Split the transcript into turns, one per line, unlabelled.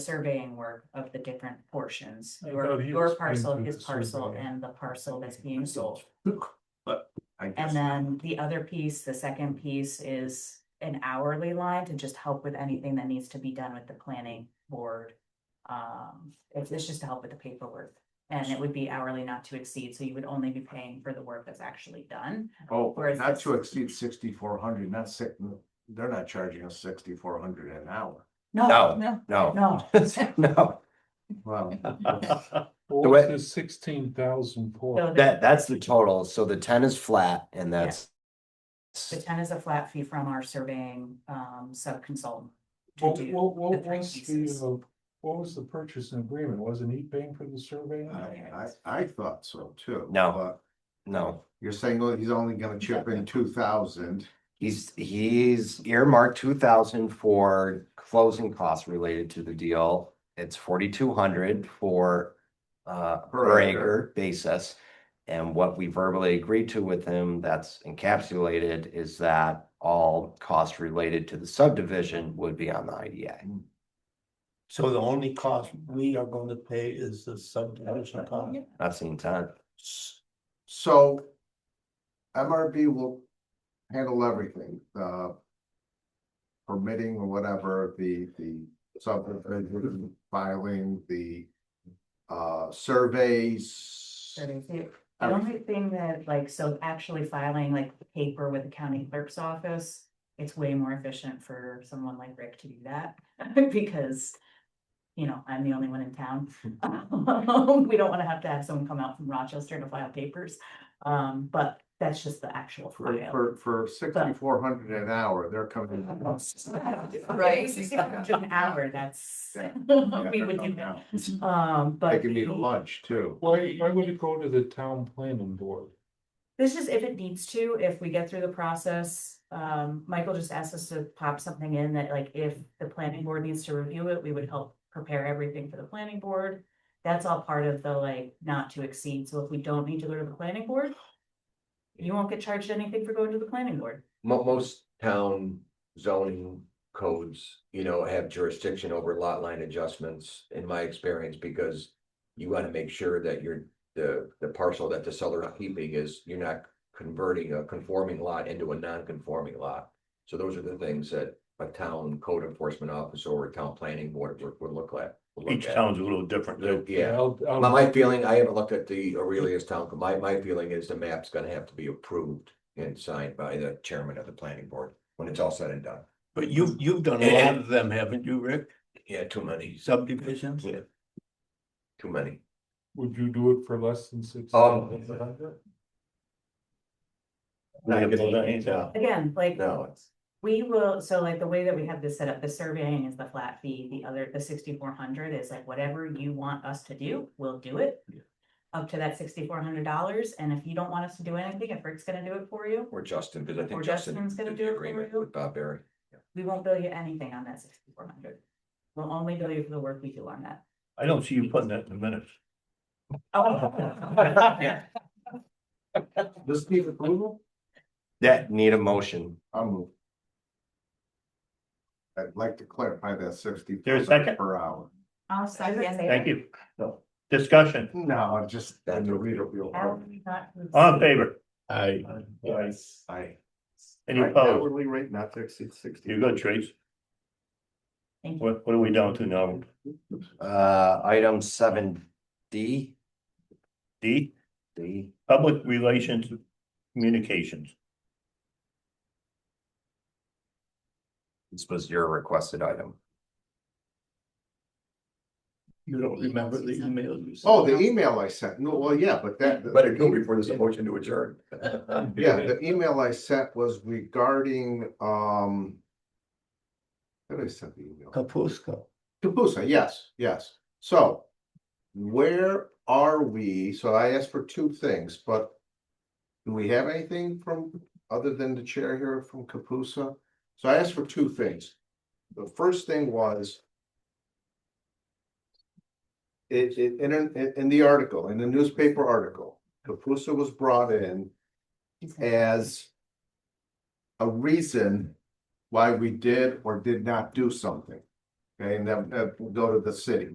surveying work of the different portions,
I thought
your,
he
your
was
parcel,
into
his
the
parcel,
surveying.
and the parcel that's being sold.
But I
And
guess,
then the other piece, the second piece is an hourly line to just help with anything that needs to be done with the planning board. Um, it's, it's just to help with the paperwork, and it would be hourly not to exceed, so you would only be paying for the work that's actually done.
Oh,
Whereas
not
this-
to exceed sixty-four hundred, not six, they're not charging us sixty-four hundred an hour.
No,
No,
No,
no,
no. Well,
what is sixteen thousand
so
for?
the,
That, that's the total, so the ten is flat and that's.
the ten is a flat fee from our surveying, um, sub-consultant. to
What,
do
what, what
the three
was
pieces.
the, uh, what was the purchase and agreement? Wasn't he paying for the survey?
I, I, I thought so too.
No.
but
No,
You're saying, well, he's only gonna chip in two thousand.
he's, he's earmarked two thousand for closing costs related to the deal. It's forty-two hundred for, uh,
Per
per
acre.
acre basis. And what we verbally agreed to with him that's encapsulated is that all costs related to the subdivision would be on the IDA.
Hmm.
So the only cost we are going to pay is the subdivision cost?
That's the intent.
So MRB will handle everything, the permitting or whatever, the, the subdivision filing, the uh, surveys.
That is it. The only thing that like, so actually filing like paper with the county clerk's office, it's way more efficient for someone like Rick to do that because. You know, I'm the only one in town. We don't wanna have to have someone come out from Rochester to file papers. Um, but that's just the actual
For,
file.
for, for sixty-four hundred an hour, they're coming.
Right.
An hour, that's.
Yeah.
We would do that. Um, but.
They can meet
the-
at lunch too.
Why, why would it go to the town planning board?
This is if it needs to, if we get through the process, um, Michael just asked us to pop something in that like if the planning board needs to review it, we would help prepare everything for the planning board. That's all part of the like not to exceed, so if we don't need to go to the planning board. You won't get charged anything for going to the planning board.
mo- most town zoning codes, you know, have jurisdiction over lot line adjustments, in my experience, because. You wanna make sure that you're, the, the parcel that the seller is keeping is, you're not converting a conforming lot into a non-conforming lot. So those are the things that a town code enforcement officer or a town planning board would, would look at. would look
Each
at.
town's a little different too.
Yeah,
I'll- I'll-
my, my feeling, I haven't looked at the Aurelius Town, but my, my feeling is the map's gonna have to be approved and signed by the chairman of the planning board when it's all said and done.
But you've, you've done a lot of them, haven't you, Rick?
Yeah, too many,
Subdivisions?
Yeah. too many.
Would you do it for less than six?
Um,
Not getting the hands out.
Again, like.
No, it's,
We will, so like the way that we have this set up, the surveying is the flat fee, the other, the sixty-four hundred is like whatever you want us to do, we'll do it. Up to that sixty-four hundred dollars, and if you don't want us to do anything, if Rick's gonna do it for you,
or Justin, because I
Or
think Justin
Justin's gonna
did
do it
the
for
agreement
you?
with Bob Berry.
we won't bill you anything on that sixty-four hundred. We'll only bill you for the work we do on that.
I don't see you putting that in the minutes.
Oh.
This needs approval?
That need a motion.
I'll move. I'd like to clarify that sixty.
There's a second?
Per hour.
I'll
second
Thank you. Discussion,
No, I'm just.
That's
the
what we-
reader will-
all in favor? Aye.
Yes. I.
Any opposed?
Hourly rate not to exceed sixty.
You're good, Trace.
Thank you.
What, what are we down to now?
Uh, item seven D,
D,
D.
public relations communications.
This was your requested item.
You don't remember the emails you
Oh, the email I sent, no, well, yeah, but that. e,
Better do it before there's a motion to adjourn.
Yeah, the email I sent was regarding, um. What did I send the email?
Kapusco.
Kapusa, yes, yes. So where are we? So I asked for two things, but do we have anything from, other than the chair here from Kapusa? So I asked for two things. The first thing was it, it, in, in, in the article, in the newspaper article, Kapusa was brought in as a reason why we did or did not do something. Okay, and then uh, go to the city.